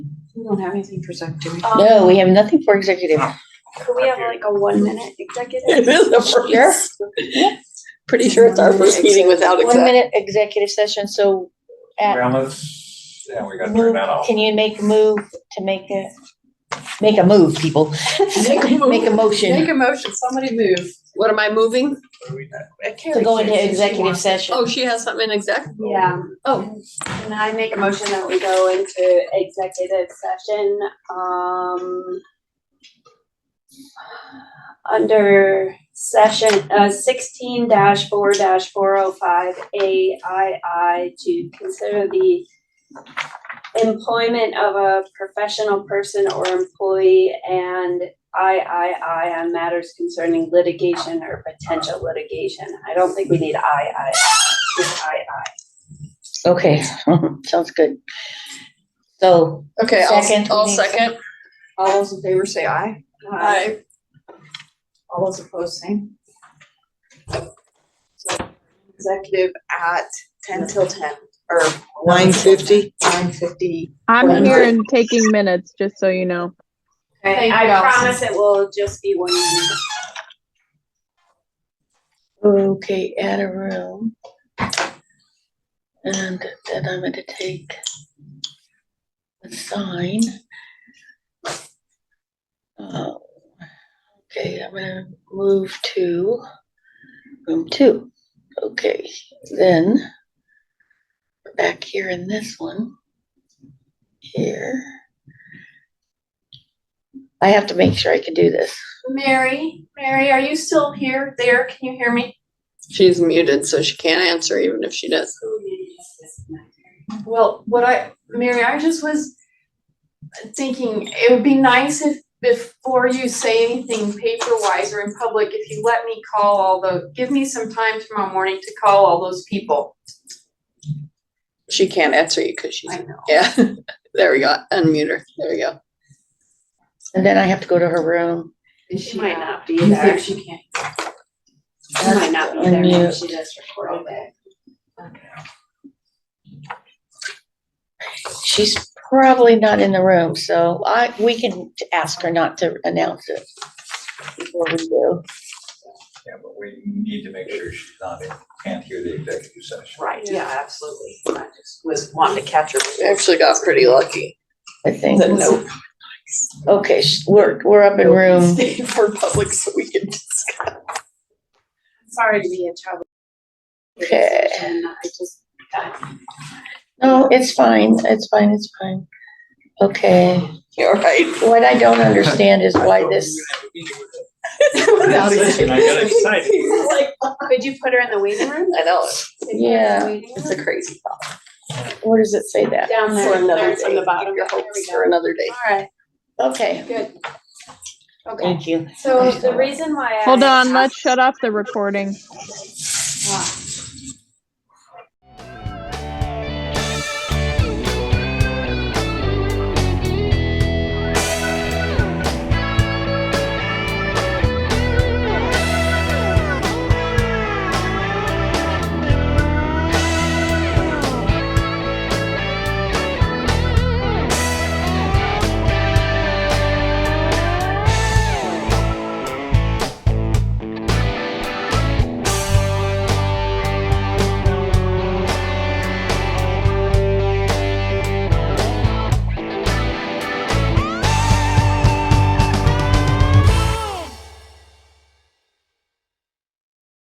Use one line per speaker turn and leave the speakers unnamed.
We don't have anything for Zach, do we?
Um,
No, we have nothing for executive.
Could we have like a one minute executive?
It is the first. Pretty sure it's our first meeting without
One
exec.
minute executive session, so at,
Well, let's, yeah, we gotta turn
move,
that off.
can you make a move to make a, make a move, people?
Make a move.
Make a
Make
motion
a motion, somebody move. What am I moving?
What are we at?
to go into executive session.
Oh, she has something in exec?
Yeah,
Oh,
and I make a motion that we go into executive session, um. Under session, uh, sixteen four four oh five A I I to consider the. Employment of a professional person or employee and I I I on matters concerning litigation or potential litigation. I don't think we need I I, just I I.
Okay, sounds good. So,
okay,
Second,
I'll,
we
I'll
need-
second.
All those in favor say aye.
I,
All those opposed, same. Executive at ten till ten, or
Nine fifty?
nine fifty.
I'm
Right.
here and taking minutes, just so you know.
Okay,
Thank you,
I
Allison.
promise it will just be one minute.
okay, add a room. And then I'm gonna take the sign. Oh, Okay, I'm gonna move to room two. Okay, then we're back here in this one. Here. I have to make sure I can do this.
Mary, Mary, are you still here? There, can you hear me?
she's muted, so she can't answer even if she does.
Well, what I, Mary, I just was thinking, it would be nice if before you say anything paper-wise or in public, if you let me call all the, give me some time tomorrow morning to call all those people.
She can't answer you because she's,
I know.
yeah. There we go, unmute her. There we go.
And then I have to go to her room.
She might not be
You think
there.
she can't?
She might not be there.
Unmute.
if She does record it.
She's probably not in the room, so I, we can ask her not to announce it. Before we do.
Yeah, but we need to make sure she's not, in- can't hear the executive session.
Right, yeah, absolutely. I just was wanting to catch her.
We Actually got pretty lucky.
I think,
The note
okay, sh- we're, we're up in room,
stayed for public so we could discuss.
Sorry to be a trouble.
Okay.
And I just,
no, it's fine, it's fine, it's fine. Okay,
All right.
what I don't understand is why this,
Without executive.
And I got excited.
could you put her in the waiting room?
I know,
Yeah.
it's a crazy thought.
where does it say that?
Down
For
there,
another
there
day,
from the bottom.
keep your hopes for another day.
Alright,
Okay,
good. Okay,
thank you.
so the reason why I.
Hold on, let's shut off the recording.
Ah,